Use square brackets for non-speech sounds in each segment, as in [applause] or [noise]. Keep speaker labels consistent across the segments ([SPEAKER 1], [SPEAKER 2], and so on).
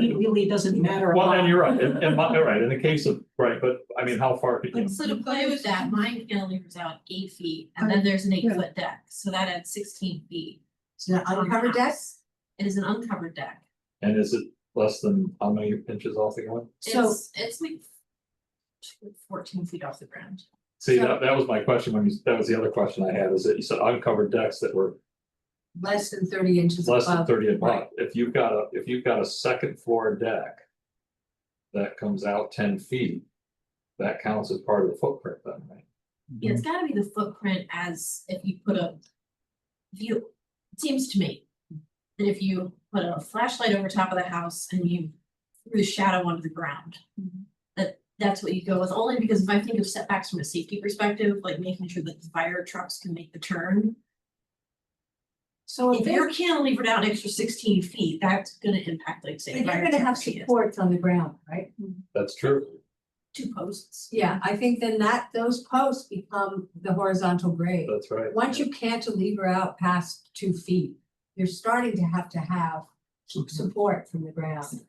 [SPEAKER 1] It really doesn't matter a
[SPEAKER 2] Well, and
[SPEAKER 1] lot.
[SPEAKER 2] you're right, and,
[SPEAKER 3] [laughs]
[SPEAKER 2] and, my- you're right, in the case of, right, but I mean, how far could you?
[SPEAKER 4] But so to play with that, mine cantilever's out eight feet and then there's an eight foot deck, so that adds sixteen feet.
[SPEAKER 3] It's not uncovered decks?
[SPEAKER 4] It is an uncovered deck.
[SPEAKER 2] And is it less than how many inches off the ground?
[SPEAKER 3] So,
[SPEAKER 4] It's it's like fourteen feet off the ground.
[SPEAKER 2] See,
[SPEAKER 3] So-
[SPEAKER 2] that, that was my question, when you, that was the other question I had, is that you said uncovered decks that were
[SPEAKER 3] less than thirty inches
[SPEAKER 2] less than
[SPEAKER 3] above,
[SPEAKER 2] thirty above.
[SPEAKER 3] right.
[SPEAKER 2] If you've got a, if you've got a second floor deck that comes out ten feet, that counts as part of the footprint then, right?
[SPEAKER 4] Yeah,
[SPEAKER 2] Mm.
[SPEAKER 4] it's gotta be the footprint as if you put a view, it seems to me. That if you put a flashlight over top of the house and you threw the shadow onto the ground.
[SPEAKER 2] Mm-hmm.
[SPEAKER 4] That that's what you go with, only because if I think of setbacks from a safety perspective, like making sure that the fire trucks can make the turn.
[SPEAKER 3] so if
[SPEAKER 4] If
[SPEAKER 3] they're,
[SPEAKER 4] you're cantilevered out an extra sixteen feet, that's gonna impact like say.
[SPEAKER 3] if you're
[SPEAKER 4] fire
[SPEAKER 3] gonna have
[SPEAKER 4] trucks, yes.
[SPEAKER 3] supports on the ground, right?
[SPEAKER 2] That's true.
[SPEAKER 4] Two posts.
[SPEAKER 3] Yeah, I think then that, those posts become the horizontal grade.
[SPEAKER 2] That's right.
[SPEAKER 3] Once you cantilever out past two feet, you're starting to have to have Mhm. support from the ground.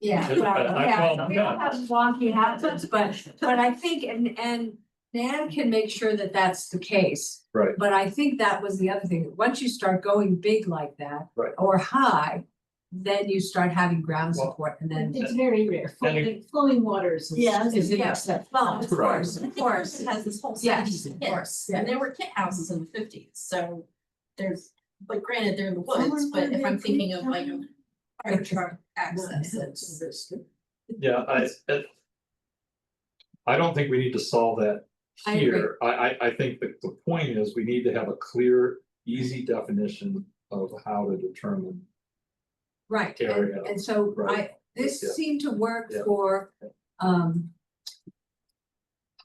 [SPEAKER 3] Yeah,
[SPEAKER 2] I-
[SPEAKER 3] well,
[SPEAKER 2] I-
[SPEAKER 3] yeah,
[SPEAKER 2] well,
[SPEAKER 3] we all
[SPEAKER 2] no.
[SPEAKER 3] have wonky houses, but, but I think, and, and Nan can make sure that that's the case.
[SPEAKER 2] Right.
[SPEAKER 3] But I think that was the other thing, once you start going big like that.
[SPEAKER 2] Right.
[SPEAKER 3] Or high, then you start having ground
[SPEAKER 2] Well-
[SPEAKER 3] support and then,
[SPEAKER 5] It's very rare,
[SPEAKER 2] Then it-
[SPEAKER 5] flowing, flowing waters is,
[SPEAKER 4] Yeah,
[SPEAKER 5] is an
[SPEAKER 3] yeah.
[SPEAKER 5] exception.
[SPEAKER 3] well, of
[SPEAKER 2] Right.
[SPEAKER 3] course, of course.
[SPEAKER 4] It has this whole
[SPEAKER 3] Yes,
[SPEAKER 4] series of
[SPEAKER 3] of course,
[SPEAKER 4] kits, and there were kit houses in the fifties, so there's, but granted, they're in the woods, but if I'm thinking of like. a Fire truck access, it's,
[SPEAKER 2] Yeah, I, it. I don't think we need to solve that
[SPEAKER 3] I agree.
[SPEAKER 2] here. I, I, I think that the point is we need to have a clear, easy definition of how to determine.
[SPEAKER 3] Right, and,
[SPEAKER 2] Area,
[SPEAKER 3] and so I,
[SPEAKER 2] right,
[SPEAKER 3] this
[SPEAKER 2] yeah.
[SPEAKER 3] seemed to work
[SPEAKER 2] Yeah.
[SPEAKER 3] for, um.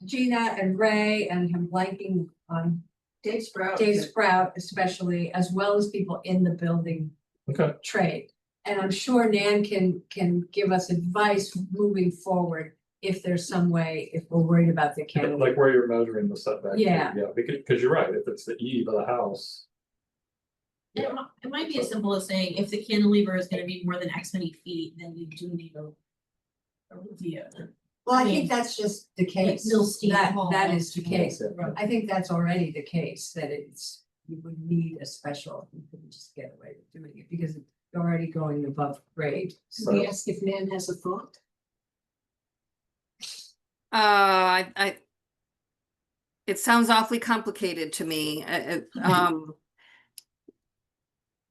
[SPEAKER 3] Gina and Ray and him liking on
[SPEAKER 5] Dave Sprout.
[SPEAKER 3] Dave Sprout especially, as well as people in the building
[SPEAKER 2] Okay,
[SPEAKER 3] trade. And I'm sure Nan can, can give us advice moving forward if there's some way, if we're worried about the cantilever.
[SPEAKER 2] like where you're measuring the setback. too,
[SPEAKER 3] Yeah.
[SPEAKER 2] Yeah, because, because you're right, if it's the eve of the house.
[SPEAKER 4] it mi- it might be as simple as saying, if the cantilever is gonna be more than X many feet, then you do need a. A review.
[SPEAKER 3] Well, I think that's just the case.
[SPEAKER 4] Milstein
[SPEAKER 3] That,
[SPEAKER 4] Hall.
[SPEAKER 3] that is the case.
[SPEAKER 2] Yeah.
[SPEAKER 3] I think that's already the case, that it's, you would need a special, you couldn't just get away with doing it because you're already going above grade.
[SPEAKER 5] Should we ask if Nan has a thought?
[SPEAKER 6] Uh, I, I. It sounds awfully complicated to me, I- I- um.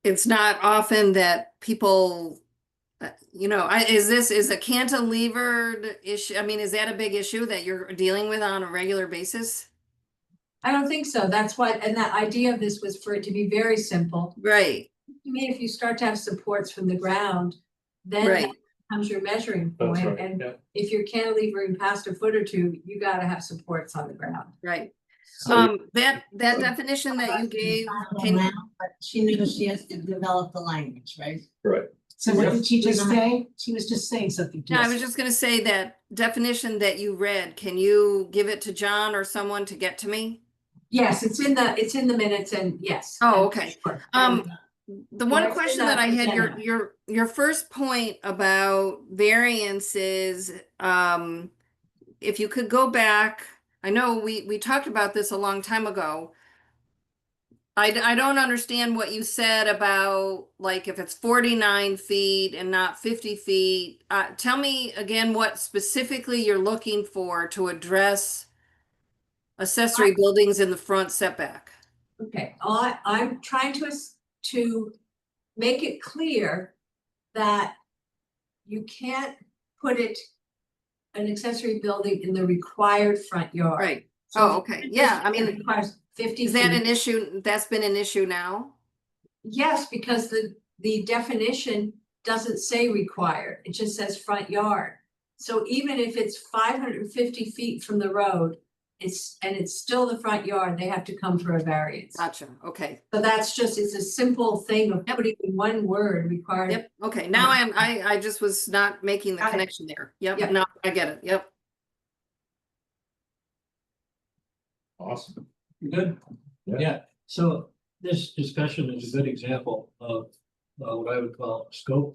[SPEAKER 6] It's not often that people, uh, you know, I, is this, is a cantilevered issue, I mean, is that a big issue that you're dealing with on a regular basis?
[SPEAKER 3] I don't think so. That's why, and the idea of this was for it to be very simple.
[SPEAKER 6] Right,
[SPEAKER 3] I mean, if you start to have supports from the ground, then
[SPEAKER 6] Right.
[SPEAKER 3] that becomes your measuring
[SPEAKER 2] That's
[SPEAKER 3] point.
[SPEAKER 2] right,
[SPEAKER 3] And
[SPEAKER 2] yeah.
[SPEAKER 3] if you're cantilevering past a foot or two, you gotta have supports on the ground.
[SPEAKER 6] right,
[SPEAKER 2] So-
[SPEAKER 6] um, that, that definition that you gave, can,
[SPEAKER 7] But she knew she has to develop the language, right?
[SPEAKER 5] So what did she just
[SPEAKER 7] Yes.
[SPEAKER 5] say? She was just saying something to
[SPEAKER 6] No, I was
[SPEAKER 5] us.
[SPEAKER 6] just gonna say that definition that you read, can you give it to John or someone to get to me?
[SPEAKER 3] Yes, it's in the, it's in the minutes and yes.
[SPEAKER 6] Oh,
[SPEAKER 3] I'm
[SPEAKER 6] okay.
[SPEAKER 3] sure.
[SPEAKER 6] Um, the one
[SPEAKER 5] Or
[SPEAKER 6] question
[SPEAKER 5] not
[SPEAKER 6] that I had, your,
[SPEAKER 5] general.
[SPEAKER 6] your, your first point about variances, um, if you could go back, I know we, we talked about this a long time ago. I, d- I don't understand what you said about, like, if it's forty-nine feet and not fifty feet. Uh, tell me again what specifically you're looking for to address accessory buildings in the front setback.
[SPEAKER 3] Okay, I, I'm trying to, es- to make it clear that you can't put it, an accessory building in the required front yard.
[SPEAKER 6] Right,
[SPEAKER 3] So
[SPEAKER 6] oh, okay, yeah, I
[SPEAKER 3] it
[SPEAKER 6] mean.
[SPEAKER 3] Requires fifty
[SPEAKER 6] Is that
[SPEAKER 3] feet.
[SPEAKER 6] an issue, that's been an issue now?
[SPEAKER 3] Yes, because the, the definition doesn't say required, it just says front yard. So even if it's five hundred and fifty feet from the road, it's, and it's still the front yard, they have to come for a variance.
[SPEAKER 6] Gotcha, okay,
[SPEAKER 3] So that's just, it's a simple thing of putting in one word required.
[SPEAKER 6] yep, okay, now I'm, I, I just was not making the
[SPEAKER 3] Got it.
[SPEAKER 6] connection there, yep,
[SPEAKER 3] Yep.
[SPEAKER 6] no, I get it, yep.
[SPEAKER 2] Awesome.
[SPEAKER 8] Good.
[SPEAKER 2] Yeah.
[SPEAKER 8] Yeah, so this discussion is a good example of uh, what I would call scope